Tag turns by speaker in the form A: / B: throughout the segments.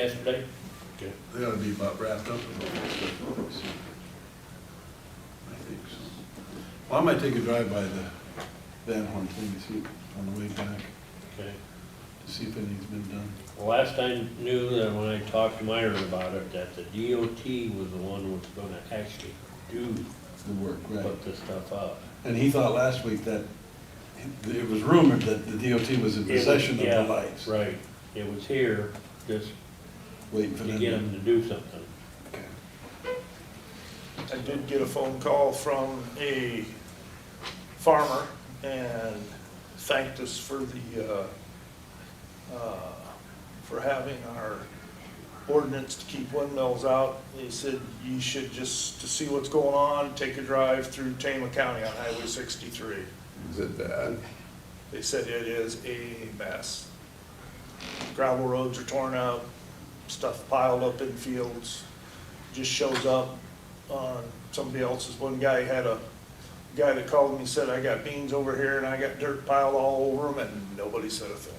A: yesterday.
B: They ought to be about wrapped up in all this stuff. I think so. Well, I might take a drive by the Van Horn thing to see, on the way back,
A: Okay.
B: to see if anything's been done.
A: The Last I knew, that when I talked to Myron about it, that the DOT was the one who was gonna actually do,
B: The work, right.
A: put this stuff up.
B: And he thought last week that, it was rumored that the DOT was in
A: It was-
B: possession of
A: yeah,
B: the lights.
A: Right, it was here, just
B: Waiting for
A: to
B: them.
A: get them to do something.
B: Okay.
C: I did get a phone call from a farmer and thanked us for the, uh, uh, for having our ordinance to keep windmills out. They said you should just, to see what's going on, take a drive through Tama County on Highway sixty-three.
D: Is it bad?
C: They said it is a mess. Gravel roads are torn up, stuff piled up in fields, just shows up on somebody else's. One guy had a, guy that called me and said, I got beans over here and I got dirt piled all over them and nobody said a thing.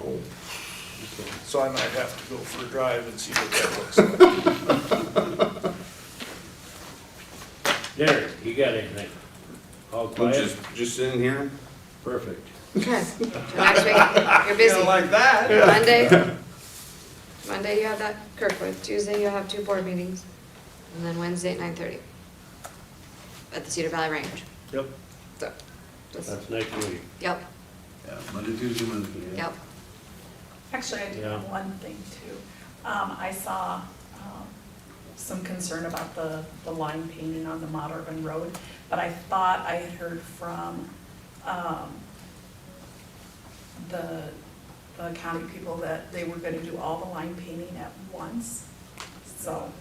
D: Oh,
C: So I might have to go for a drive and see what that looks like.
A: Derek, you got anything? All
D: I'm
A: quiet?
D: just, just sitting here?
A: Perfect.
E: Okay, next week, you're busy.
C: like that.
E: Monday, Monday you have that Kirkwood, Tuesday you'll have two board meetings, and then Wednesday at nine thirty at the Cedar Valley Range,
C: Yep.
E: so, just,
A: That's next week.
E: yep,
B: Yeah, Monday, Tuesday, Wednesday. yeah.
E: yep.
F: Actually, I do
A: Yeah.
F: have one thing too. Um, I saw, um, some concern about the, the line painting on the Mount Urban Road, but I thought I had heard from, um, the, the county people that they were gonna do all the line painting at once, so.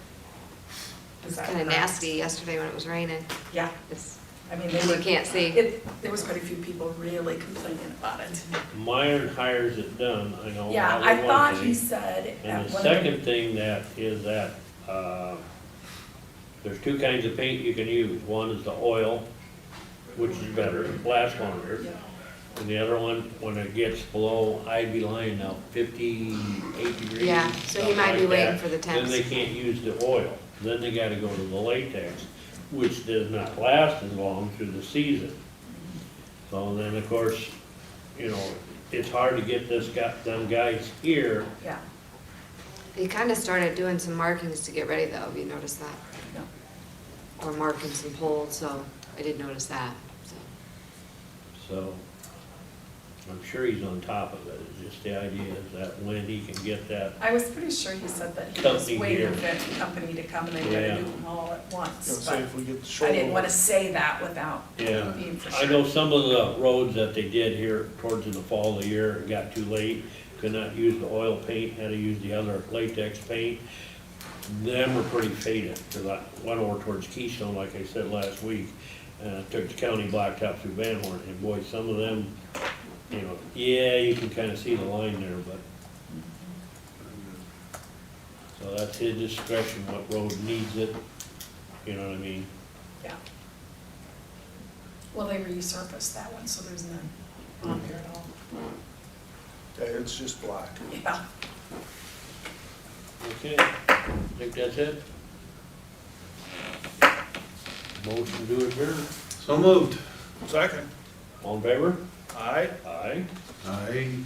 E: It's
F: is that
E: kinda
F: correct?
E: nasty yesterday when it was raining,
F: Yeah,
E: it's,
F: I mean, they
E: you
F: were,
E: can't see,
F: it, there was quite a few people really complaining about it.
A: Myron hires it done, I know.
F: Yeah,
A: Oh, that was
F: I
A: one
F: thought
A: thing.
F: he said at one
A: And
F: of
A: the
F: the.
A: second thing that is that, uh, there's two kinds of paint you can use. One is the oil, which is better, it lasts longer.
F: Yeah.
A: And the other one, when it gets below Ivy line now fifty-eight degrees.
E: Yeah, so he
A: something
E: might be
A: like that,
E: waiting for the
A: Then
E: temps.
A: they can't use the oil, then they gotta go to the latex, which does not last as long through the season. So then, of course, you know, it's hard to get this guy, them guys here
F: Yeah,
E: he kinda started doing some markings to get ready though, if you noticed that,
F: no.
E: or marking some holes, so I did notice that, so.
A: So I'm sure he's on top of it. It's just the idea is that when he can get that,
F: I was pretty sure he said that he was
A: Company
F: waiting
A: here.
F: for the company to come and they
A: Yeah.
F: gotta do them all at once,
C: See if
F: but
C: we get the shoulder.
F: I didn't wanna say that without
A: yeah.
F: being for
A: I
F: sure.
A: know some of the roads that they did here towards the fall of the year, it got too late, could not use the oil paint, had to use the other latex paint. Them were pretty faded, cause I went over towards Keystone, like I said last week, and I took the county blacktop through Van Horn, and boy, some of them, you know, yeah, you can kinda see the line there, but So that's his discretion, what road needs it, you know what I mean?
F: Yeah. Well, they resurfaced that one, so there's none on
A: Hmm.
F: there at all.
C: Yeah, it's just black.
F: Yeah,
A: Okay, I think that's it. Motion to adjourn.
B: So moved.
C: Second,
A: All in favor?
C: aye?
A: Aye.
B: Aye.